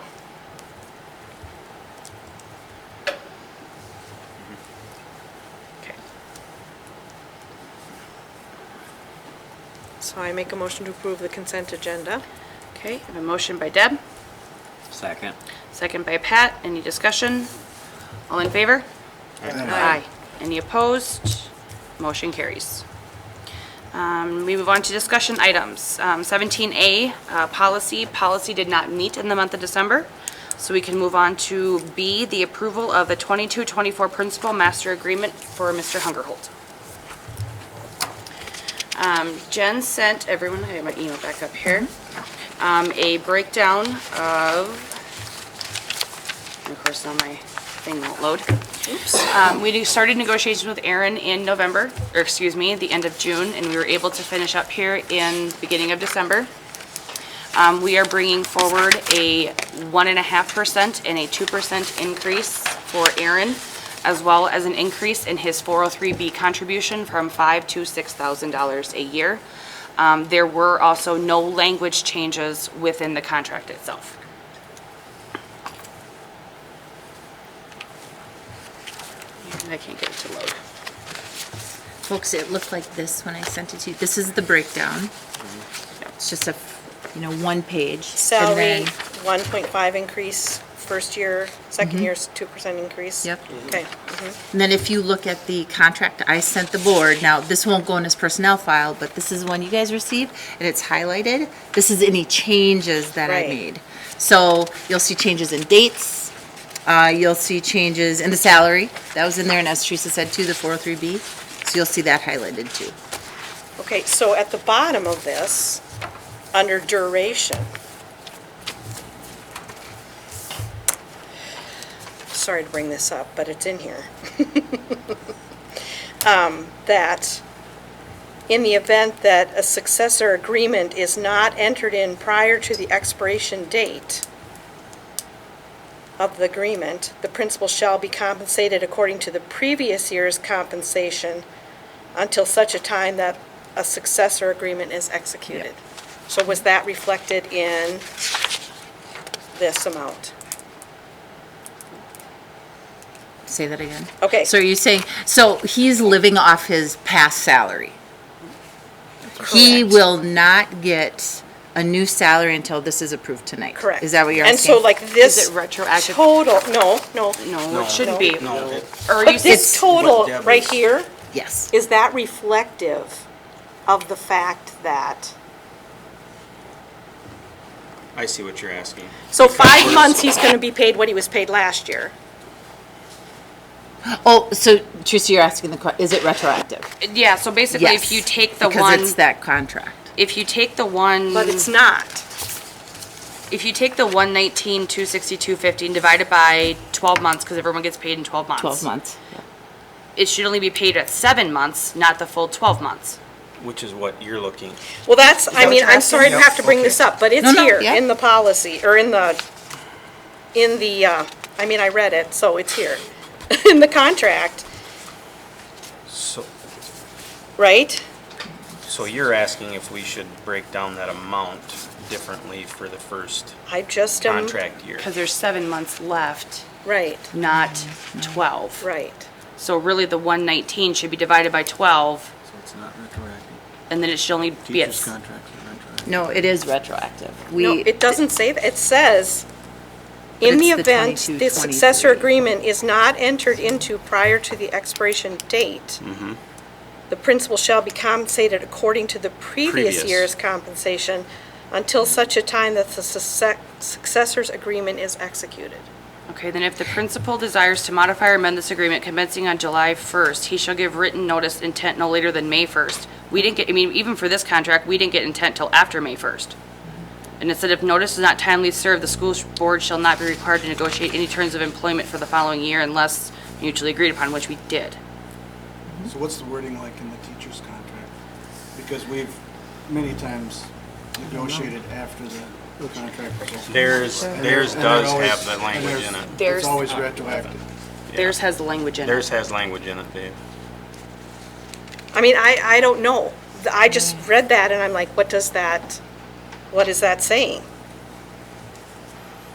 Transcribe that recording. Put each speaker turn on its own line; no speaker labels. So I make a motion to approve the consent agenda.
Okay, I have a motion by Deb,
Second.
second by Pat. Any discussion? All in favor? Aye. Any opposed? Motion carries. Um, We move on to discussion items. Um, 17A, uh, policy. Policy did not meet in the month of December, so we can move on to B, the approval of the 22-24 Principal Master Agreement for Mr. Hungerhold. Um, Jen sent everyone, I have my email back up here, um, a breakdown of, and of course, now my thing won't load. Um, We do- started negotiations with Aaron in November, or excuse me, the end of June, and we were able to finish up here in the beginning of December. Um, We are bringing forward a 1.5% and a 2% increase for Aaron, as well as an increase in his 403B contribution from five to $6,000 a year. Um, There were also no language changes within the contract itself. I can't get it to load.
Folks, it looked like this when I sent it to you. This is the breakdown. It's just a, you know, one page.
Salary,
And then-
1.5 increase, first year, second year's 2% increase.
Yep.
Okay. Mm-hmm.
And then if you look at the contract I sent the board, now this won't go in as personnel file, but this is one you guys received and it's highlighted. This is any changes that I
Right.
made. So you'll see changes in dates, uh, you'll see changes in the salary. That was in there and as Teresa said too, the 403B. So you'll see that highlighted too.
Okay, so at the bottom of this, under duration. Sorry to bring this up, but it's in here. Um, That in the event that a successor agreement is not entered in prior to the expiration date of the agreement, the principal shall be compensated according to the previous year's compensation until such a time that a successor agreement is executed. So was that reflected in this amount?
Say that again.
Okay.
So are you saying, so he's living off his past salary? He
Correct.
will not get a new salary until this is approved tonight?
Correct.
Is that what you're
And so
asking?
like this
Is it retroactive?
total, no, no.
No, it shouldn't be.
No.
Or you
But
said
this total
Deb
right
is-
here,
Yes.
is that reflective of the fact that,
I see what you're asking.
so five months, he's going to be paid what he was paid last year?
Oh, so Teresa, you're asking the, que- is it retroactive?
Yeah, so basically, if
Yes,
you take the
Because
one,
it's that contract.
if you take the one,
But it's not.
if you take the one nineteen, two sixty-two fifty and divide it by twelve months, because everyone gets paid in twelve months.
12 months.
It should only be paid at seven months, not the full twelve months.
Which is what you're looking.
Well, that's, I
that
mean,
what
I'm
you're
sorry to
asking?
have to bring this up, but it's
No, no,
here
yeah.
in the policy, or in the, in the, uh, I mean, I read it, so it's here, in the contract,
So,
right?
so you're asking if we should break down that amount differently for the first
I just, um,
contract year?
Because there's seven months left,
right,
not twelve.
right.
So really, the one nineteen should be divided by twelve,
So it's not retroactive.
and then it should only be at.
Teachers'
s-
contracts are retroactive.
No, it is retroactive.
No,
We,
it doesn't say that, it says, in
it's
the
the
event
22,
the successor
23.
agreement is not entered into prior to the expiration date, the principal shall be compensated according to the previous
Previous.
year's compensation until such a time that the succe- successor's agreement is executed.
Okay, then if the principal desires to modify or amend this agreement commencing on July 1st, he shall give written notice intent no later than May 1st. We didn't get, I mean, even for this contract, we didn't get intent till after May 1st. And it said if notice is not timely served, the school board shall not be required to negotiate any terms of employment for the following year unless mutually agreed upon, which we did.
So what's the wording like in the teachers' contract? Because we've many times negotiated after the contract was over.
Theirs, theirs
And they're
does
always-
have that
and
language in
they're-
it.
Theirs-
It's always retroactive.
Theirs has the language in it.
Theirs has language in it, Dave.
I mean,
Mm.
I, I don't know. I just read that and I'm like, what does that, what is that saying?